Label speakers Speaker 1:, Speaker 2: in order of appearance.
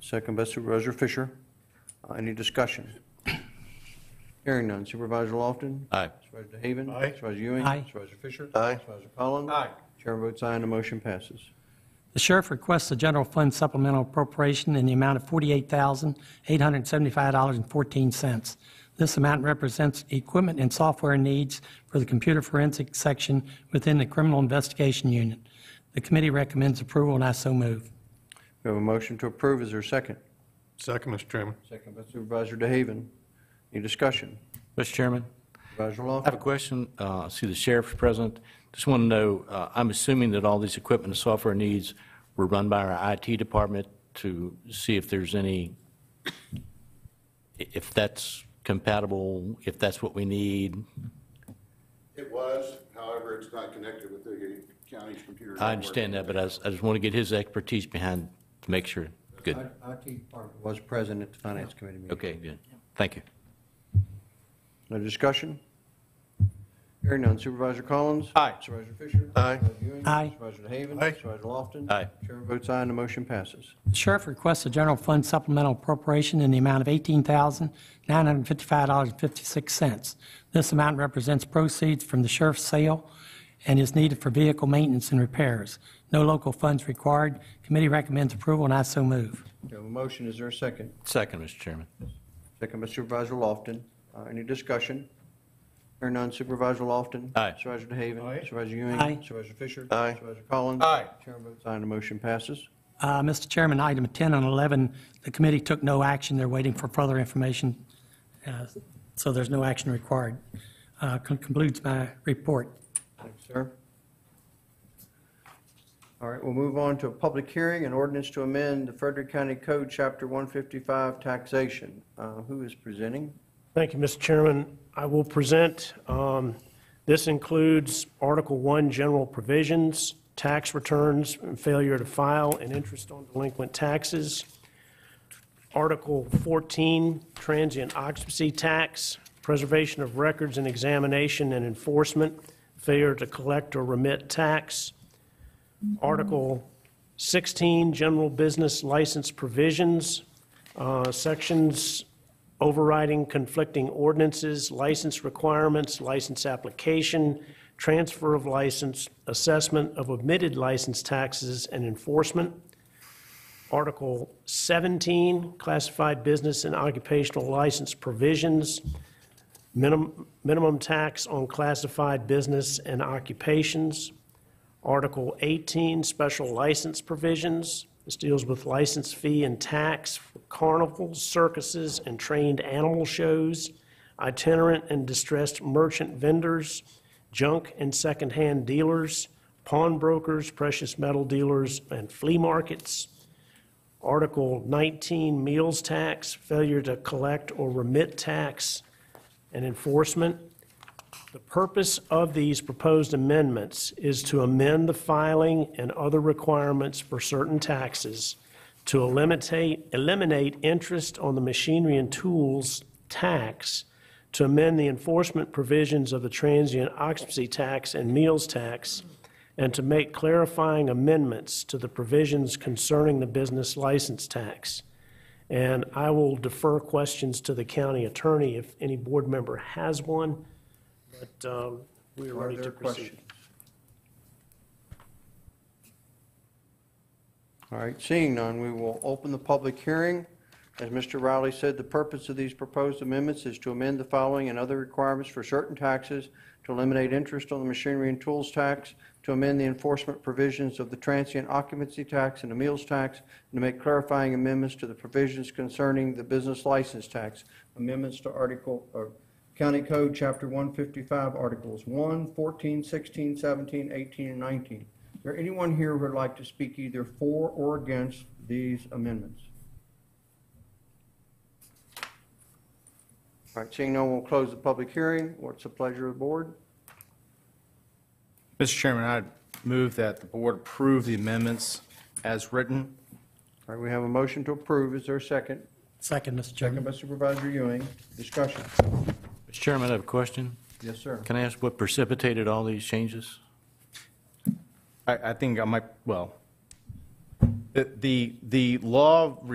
Speaker 1: Second by Supervisor Fisher. Uh, Any discussion? Hearing none. Supervisor Lofton?
Speaker 2: Aye.
Speaker 1: Supervisor DeHaven?
Speaker 3: Aye.
Speaker 1: Supervisor Ewing?
Speaker 4: Aye.
Speaker 1: Supervisor Fisher?
Speaker 3: Aye.
Speaker 1: Supervisor Collins?
Speaker 3: Aye.
Speaker 1: Chair votes aye and the motion passes.
Speaker 4: The sheriff requests a general fund supplemental appropriation in the amount of $48,875.14. This amount represents equipment and software needs for the computer forensic section within the criminal investigation unit. The committee recommends approval, and I so move.
Speaker 1: We have a motion to approve. Is there a second?
Speaker 3: Second, Mr. Chairman.
Speaker 1: Second by Supervisor DeHaven. Any discussion?
Speaker 2: Mr. Chairman,
Speaker 1: Supervisor
Speaker 2: I have a
Speaker 1: Lofton?
Speaker 2: question. Uh, I See, the sheriff's present. Just want to know, uh, I'm assuming that all these equipment and software needs were run by our IT department to see if there's any, i- if that's compatible, if that's what we need.
Speaker 5: It was, however, it's not connected with the county's computer.
Speaker 2: I understand that, but I s- I just want to get his expertise behind to make sure. Good.
Speaker 1: IT department was present at the Finance Committee meeting.
Speaker 2: Okay, good. Thank you.
Speaker 1: No discussion? Hearing none. Supervisor Collins?
Speaker 2: Aye.
Speaker 1: Supervisor Fisher?
Speaker 3: Aye.
Speaker 1: Supervisor Ewing?
Speaker 4: Aye.
Speaker 1: Supervisor DeHaven?
Speaker 3: Aye.
Speaker 1: Supervisor Lofton?
Speaker 2: Aye.
Speaker 1: Chair votes aye and the motion passes.
Speaker 4: The sheriff requests a general fund supplemental appropriation in the amount of $18,955.56. This amount represents proceeds from the sheriff's sale and is needed for vehicle maintenance and repairs. No local funds required. Committee recommends approval, and I so move.
Speaker 1: We have a motion. Is there a second?
Speaker 2: Second, Mr. Chairman.
Speaker 1: Second by Supervisor Lofton. Uh, Any discussion? Hearing none, Supervisor Lofton.
Speaker 2: Aye.
Speaker 1: Supervisor DeHaven.
Speaker 3: Aye.
Speaker 1: Supervisor Ewing.
Speaker 4: Aye.
Speaker 1: Supervisor Fisher.
Speaker 3: Aye.
Speaker 1: Supervisor Collins.
Speaker 3: Aye.
Speaker 1: Chair votes aye, and the motion passes.
Speaker 4: Uh, Mr. Chairman, item 10 and 11, the committee took no action. They're waiting for further information, uh, so there's no action required. Uh, con- Concludes my report.
Speaker 1: Thanks, sir. All right, we'll move on to a public hearing, an ordinance to amend the Frederick County Code, Chapter 155, taxation. Uh, Who is presenting?
Speaker 6: Thank you, Mr. Chairman. I will present, um, this includes Article 1, general provisions, tax returns, and failure to file, and interest on delinquent taxes. Article 14, transient occupancy tax, preservation of records and examination and enforcement, failure to collect or remit tax. Article 16, general business license provisions, uh, sections overriding conflicting ordinances, license requirements, license application, transfer of license, assessment of omitted license taxes, and enforcement. Article 17, classified business and occupational license provisions, minim- minimum tax on classified business and occupations. Article 18, special license provisions. This deals with license fee and tax for carnivals, circuses, and trained animal shows, itinerant and distressed merchant vendors, junk and secondhand dealers, pawnbrokers, precious metal dealers, and flea markets. Article 19, meals tax, failure to collect or remit tax, and enforcement. The purpose of these proposed amendments is to amend the filing and other requirements for certain taxes, to eliminate, eliminate interest on the machinery and tools tax, to amend the enforcement provisions of the transient occupancy tax and meals tax, and to make clarifying amendments to the provisions concerning the business license tax. And I will defer questions to the county attorney if any board member has one, but um, we are
Speaker 1: Are
Speaker 6: ready to
Speaker 1: there
Speaker 6: proceed.
Speaker 1: questions? All right, seeing none, we will open the public hearing. As Mr. Riley said, the purpose of these proposed amendments is to amend the following and other requirements for certain taxes, to eliminate interest on the machinery and tools tax, to amend the enforcement provisions of the transient occupancy tax and the meals tax, and to make clarifying amendments to the provisions concerning the business license tax. Amendments to Article, or County Code, Chapter 155, Articles 1, 14, 16, 17, 18, and 19. Is there anyone here who would like to speak either for or against these amendments? All right, seeing no one, we'll close the public hearing. What's the pleasure of the board?
Speaker 7: Mr. Chairman, I'd move that the board approve the amendments as written.
Speaker 1: All right, we have a motion to approve. Is there a second?
Speaker 4: Second, Mr.
Speaker 1: Second
Speaker 4: Chairman.
Speaker 1: by Supervisor Ewing. Discussion.
Speaker 2: Mr. Chairman, I have a question.
Speaker 1: Yes, sir.
Speaker 2: Can I ask what precipitated all these changes?
Speaker 7: I, I think I might, well, the, the the law